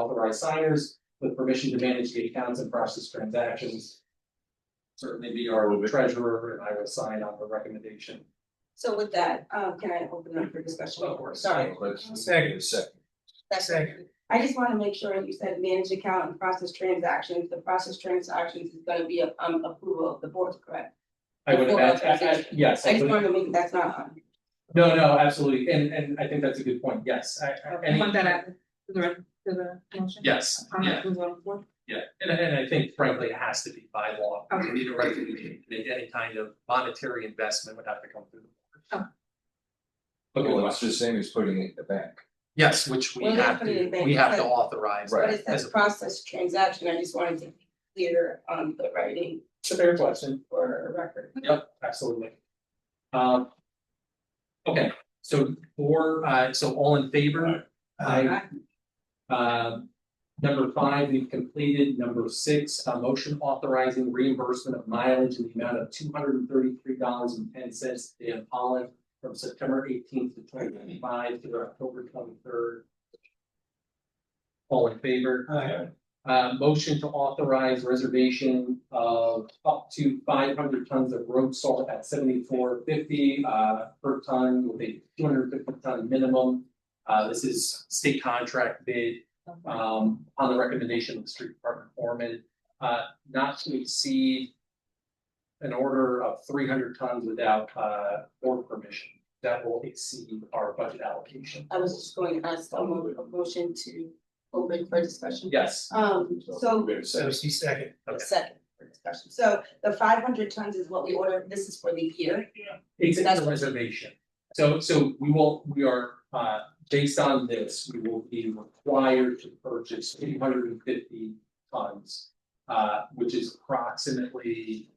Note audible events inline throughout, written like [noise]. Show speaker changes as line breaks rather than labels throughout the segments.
authorized signers with permission to manage the accounts and process transactions. Certainly be our treasurer and I will sign on the recommendation.
So with that, um, can I open up for discussion?
Of course.
Sorry.
Second. Second.
Second. I just wanna make sure you said manage account and process transactions, the process transactions is gonna be a, um, approval of the board, correct?
I would
Before
imagine, I- I-
authorization.
yes,
I
I
just
would,
wanted to make, that's not on.
no, no, absolutely, and and I think that's a good point, yes, I I
Okay.
any-
Want that added to the, to the motion?
Yes,
Uh-huh.
On
yeah,
that, who's on board?
yeah, and and I think frankly, it has to be by law,
Okay.
we need a recommendation, to make any kind of monetary investment would have to come through the board. Okay,
Well,
well,
it's the same as putting it in the bank.
yes, which we
Well, that's
have
what it
to,
is, they
we have to
said-
authorize.
But
as
it says
a-
process transaction, I just wanted to be clear on the writing
It's a fair question.
for record.
Yep, absolutely. Um. Okay, so for, uh, so all in favor? Aye. Um, number five, we've completed. Number six, a motion authorizing reimbursement of mileage in the amount of two hundred and thirty-three dollars and ten cents to Dan Pollan from September eighteenth to twenty-five to October twenty-third. All in favor? Uh, motion to authorize reservation of up to five hundred tons of road salt at seventy-four fifty, uh, per ton with a two hundred fifty ton minimum. Uh, this is state contract bid, um, on the recommendation of the street department foreman, uh, not to exceed an order of three hundred tons without, uh, board permission. That will exceed our budget allocation.
I was just going to ask, I'll move a motion to open for discussion.
Yes,
Um, so
We have a second.
second.
Okay.
second for discussion, so the five hundred tons is what we ordered, this is for the year.
It's a
That's-
reservation. So so we will, we are, uh, based on this, we will be required to purchase two hundred and fifty tons. Uh, which is approximately,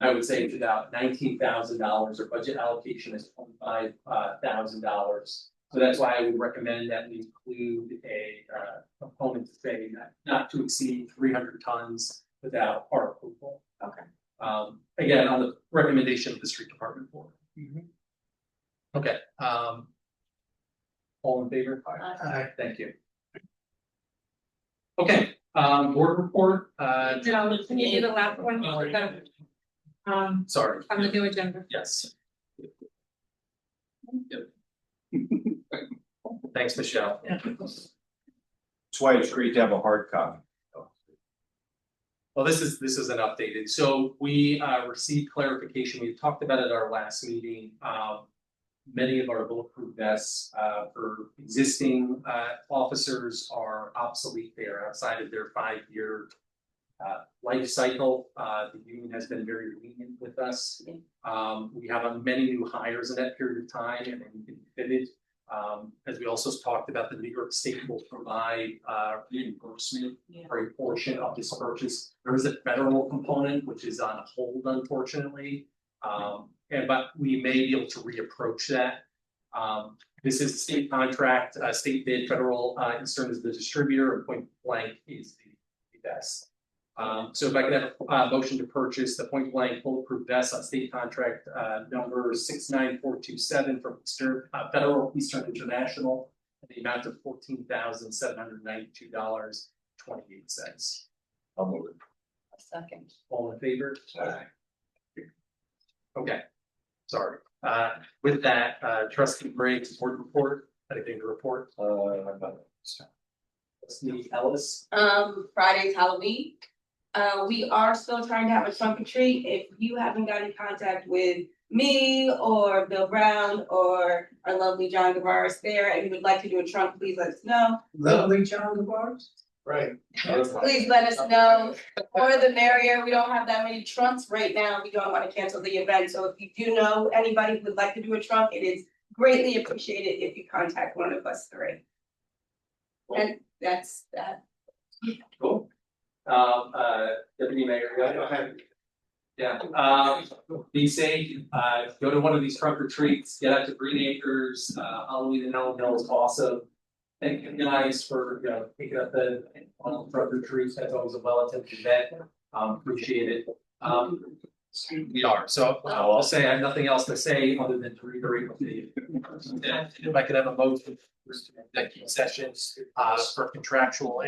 I would say it's about nineteen thousand dollars, our budget allocation is twenty-five uh, thousand dollars. So that's why I would recommend that we include a uh component to say not not to exceed three hundred tons without our approval.
Okay.
Um, again, on the recommendation of the street department board. Okay, um. All in favor?
Aye.
Thank you. Okay, um, board report, uh,
No, can you do the last one? The- Um,
sorry.
on the new agenda.
Yes. Yep. [laughs] Thanks, Michelle.
That's why it's great to have a hard copy.
Well, this is, this is an updated, so we uh received clarification, we talked about it at our last meeting, um. Many of our bulletproof vests uh for existing uh officers are obsolete, they are outside of their five-year. Uh life cycle, uh the union has been very lenient with us.
Yeah.
Um, we have uh, many new hires in that period of time and then been fitted. Um, as we also talked about, the New York State will provide uh reimbursement for a portion of this purchase. There is a federal component which is on hold unfortunately. Um, and but we may be able to reapproach that. Um, this is a state contract, uh, state bid, federal, uh, concern is the distributor, and point blank is the the best. Um, so if I could have a, uh, motion to purchase the point blank bulletproof vest on state contract, uh, number six nine four two seven from Eastern, uh, Federal Eastern International. in The amount of fourteen thousand seven hundred ninety-two dollars twenty-eight cents.
I'll move it.
Second.
All in favor?
Aye.
Okay, sorry. Uh, with that, uh, trustee Briggs, board report, anything to report?
Uh,
Trustee Ellis?
Um, Friday's Halloween. Uh, we are still trying to have a trumpetry. If you haven't got in contact with me or Bill Brown or our lovely John Guevara there and you would like to do a trunk, please let us know.
Lovely John DeBarge. Right.
Uh,
Please let us know, or the merrier, we don't have that many trunks right now, we don't wanna cancel the event, so if you do know anybody who would like to do a trunk, it is greatly appreciated if you contact one of us three. And that's that,
Cool. Um, uh, deputy mayor. Yeah, um, be safe, uh, go to one of these trunk retreats, get out to Green Acres, uh, Halloween in Elm Hill is awesome. Thank you guys for, you know, picking up the, on trunk retreats, that's always a well attended event, um, appreciate it. Um, we are, so I'll say, I have nothing else to say other than to reiterate what the. If I could have a motion for executive sessions, uh, for contractual